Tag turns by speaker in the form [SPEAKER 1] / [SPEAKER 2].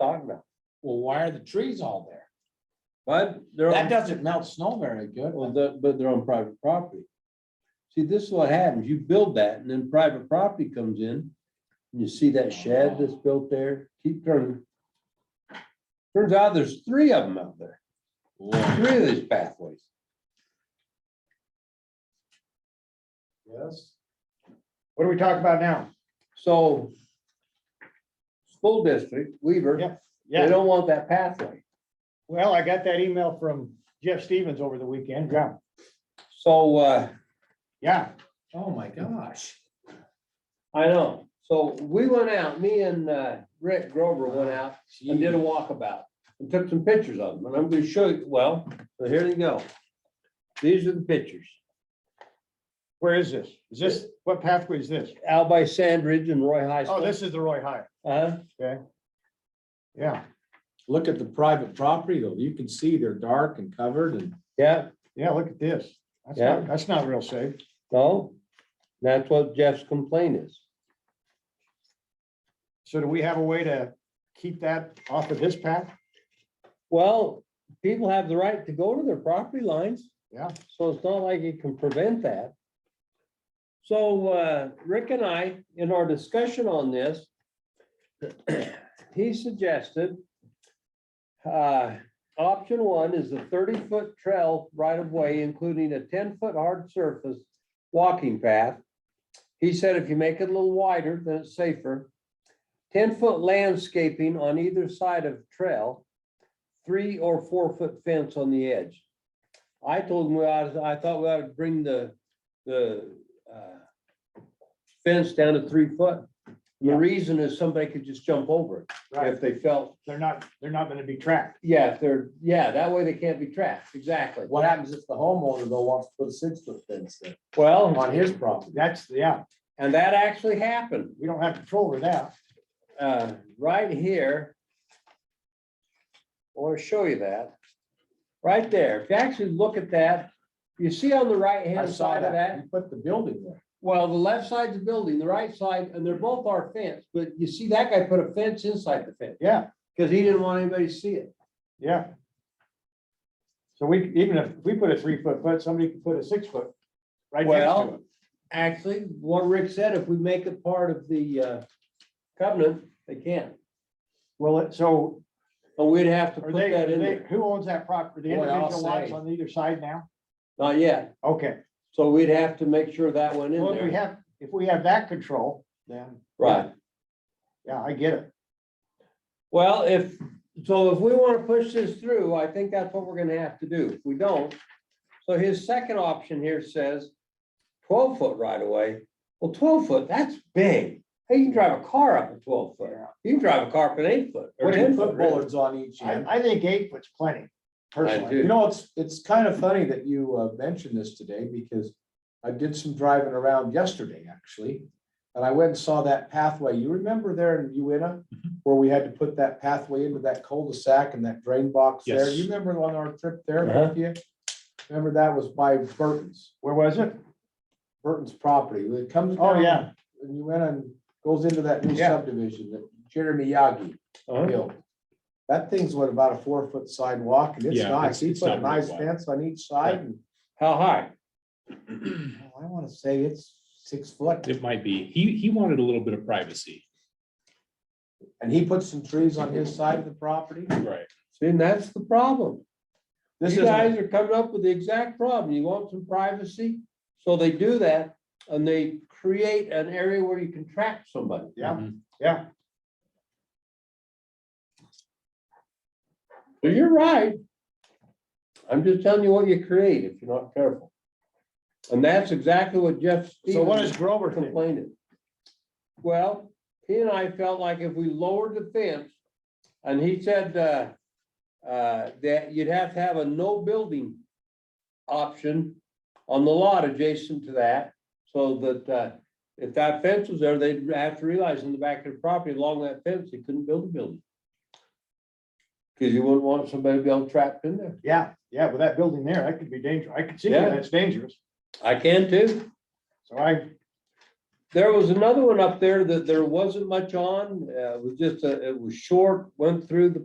[SPEAKER 1] talking about.
[SPEAKER 2] Well, why are the trees all there?
[SPEAKER 1] But they're,
[SPEAKER 2] That
[SPEAKER 1] on-
[SPEAKER 2] doesn't melt snow very good.
[SPEAKER 1] well, the- but they're on private property. See, this is what happens. You build that and then private property comes in. and You see that shed that's built there? Keep turning. Turns out there's three of them out there, three of these pathways.
[SPEAKER 3] Yes. What are we talking about now?
[SPEAKER 1] So school district, Weaver,
[SPEAKER 3] Yep.
[SPEAKER 1] they
[SPEAKER 3] Yeah,
[SPEAKER 1] don't want that pathway.
[SPEAKER 3] well, I got that email from Jeff Stevens over the weekend. Yeah,
[SPEAKER 1] So, uh,
[SPEAKER 3] yeah,
[SPEAKER 2] Oh, my gosh.
[SPEAKER 1] I know. So we went out, me and, uh, Rick Grover went out and did a walkabout and took some pictures of them. And I'm gonna show you, well, so here they go. These are the pictures.
[SPEAKER 3] where is this? Is this, what pathway is this?
[SPEAKER 1] Out by Sandridge and Roy High
[SPEAKER 3] Oh,
[SPEAKER 1] School.
[SPEAKER 3] this is the Roy High.
[SPEAKER 1] Uh,
[SPEAKER 3] Yeah,
[SPEAKER 2] Look at the private property though. You can see they're dark and covered and
[SPEAKER 1] yeah,
[SPEAKER 3] yeah, look at this. That's
[SPEAKER 1] Yeah.
[SPEAKER 3] not, that's not real safe.
[SPEAKER 1] no, that's what Jeff's complaint is.
[SPEAKER 3] So do we have a way to keep that off of this path?
[SPEAKER 1] Well, people have the right to go to their property lines.
[SPEAKER 3] Yeah.
[SPEAKER 1] So it's not like you can prevent that. So uh, Rick and I, in our discussion on this, he suggested uh, option one is a thirty-foot trail right-of-way, including a ten-foot hard surface walking path. He said if you make it a little wider, then it's safer. Ten-foot landscaping on either side of trail three or four foot fence on the edge. I told him, we ought I thought we ought to bring the, the, uh, fence down to three foot. The
[SPEAKER 3] Yeah.
[SPEAKER 1] reason is somebody could just jump over it if they felt,
[SPEAKER 3] They're not, they're not gonna be tracked.
[SPEAKER 1] yeah, if they're, yeah, that way they can't be trapped, exactly.
[SPEAKER 4] What happens if the homeowner though wants to put a six foot fence in
[SPEAKER 1] Well,
[SPEAKER 4] on his property?
[SPEAKER 3] That's, yeah,
[SPEAKER 1] and that actually happened.
[SPEAKER 3] we don't have control over that.
[SPEAKER 1] uh, right here. I want to show you that. Right there. If you actually look at that, you see on the right
[SPEAKER 4] I
[SPEAKER 1] hand
[SPEAKER 4] saw
[SPEAKER 1] side of
[SPEAKER 4] that.
[SPEAKER 1] that,
[SPEAKER 4] You put the building there.
[SPEAKER 1] well, the left side's a building, the right side, and they're both our fence, but you see that guy put a fence inside the fence
[SPEAKER 3] Yeah,
[SPEAKER 1] because he didn't want anybody to see it.
[SPEAKER 3] yeah. So we, even if we put a three foot foot, somebody could put a six foot right next to
[SPEAKER 1] Well,
[SPEAKER 3] it.
[SPEAKER 1] actually, what Rick said, if we make it part of the uh, covenant, they can.
[SPEAKER 3] Well, it- so
[SPEAKER 1] But we'd have to
[SPEAKER 3] Are
[SPEAKER 1] put
[SPEAKER 3] they,
[SPEAKER 1] that
[SPEAKER 3] are
[SPEAKER 1] in
[SPEAKER 3] they,
[SPEAKER 1] there.
[SPEAKER 3] who owns that property? The
[SPEAKER 4] Boy, I'll
[SPEAKER 3] individual lots
[SPEAKER 4] say.
[SPEAKER 3] on either side now?
[SPEAKER 1] Not yet.
[SPEAKER 3] Okay,
[SPEAKER 1] So we'd have to make sure that went in
[SPEAKER 3] well, if we
[SPEAKER 1] there.
[SPEAKER 3] have, if we have that control, then,
[SPEAKER 1] Right.
[SPEAKER 3] yeah, I get it.
[SPEAKER 1] Well, if, so if we want to push this through, I think that's what we're gonna have to do. If we don't. So his second option here says twelve foot right away. Well, twelve foot, that's big. Hey, you can drive a car up at twelve foot. You can drive a car up at eight foot or
[SPEAKER 4] Put
[SPEAKER 1] ten
[SPEAKER 4] in
[SPEAKER 1] foot.
[SPEAKER 4] foot
[SPEAKER 1] really.
[SPEAKER 4] bollards on each end.
[SPEAKER 3] I, I think eight foot's plenty, personally.
[SPEAKER 1] do.
[SPEAKER 4] You know, it's, it's kind of funny that you uh, mentioned this today because I did some driving around yesterday, actually. And I went and saw that pathway. You remember there in Uena where we had to put that pathway into that cul-de-sac and that drain box there?
[SPEAKER 2] Yes.
[SPEAKER 4] You remember on our trip there,
[SPEAKER 1] Uh-huh.
[SPEAKER 4] Matthew? Remember that was by Burton's,
[SPEAKER 3] Where was it?
[SPEAKER 4] Burton's property. It comes.
[SPEAKER 3] Oh,
[SPEAKER 4] down
[SPEAKER 3] yeah,
[SPEAKER 4] And you went and goes into that new
[SPEAKER 3] Yeah.
[SPEAKER 4] subdivision that Jeremy Yagi
[SPEAKER 1] Uh-huh.
[SPEAKER 4] built. That thing's what, about a four foot sidewalk and it's
[SPEAKER 2] Yeah, it's-
[SPEAKER 4] nice. He
[SPEAKER 2] it's
[SPEAKER 4] put a
[SPEAKER 2] not really
[SPEAKER 4] nice
[SPEAKER 2] wide.
[SPEAKER 4] fence on each side and
[SPEAKER 1] How high?
[SPEAKER 4] oh, I wanna say it's six foot.
[SPEAKER 5] It might be. He, he wanted a little bit of privacy.
[SPEAKER 4] And he put some trees on his side of the property.
[SPEAKER 5] Right.
[SPEAKER 1] See, and that's the problem.
[SPEAKER 4] This
[SPEAKER 1] You
[SPEAKER 4] is,
[SPEAKER 1] guys are coming up with the exact problem. You want some privacy? So they do that and they create an area where you can trap somebody.
[SPEAKER 3] yeah,
[SPEAKER 5] Mhm.
[SPEAKER 3] yeah.
[SPEAKER 1] So you're right. I'm just telling you what you create if you're not careful. And that's exactly what Jeff.
[SPEAKER 3] So what
[SPEAKER 1] Stevens
[SPEAKER 3] does Grover think?
[SPEAKER 1] Complaining. Well, he and I felt like if we lowered the fence, and he said, uh, uh, that you'd have to have a no building option on the lot adjacent to that, so that, uh, if that fence was there, they'd have to realize in the back of the property along that fence, they couldn't build a building. Cause you wouldn't want somebody to be all trapped in there.
[SPEAKER 3] Yeah, yeah, with that building there, that could be dangerous. I could see where
[SPEAKER 1] Yeah.
[SPEAKER 3] that's dangerous.
[SPEAKER 1] I can too.
[SPEAKER 3] So I,
[SPEAKER 1] There was another one up there that there wasn't much on, uh, it was just, a- it was short, went through the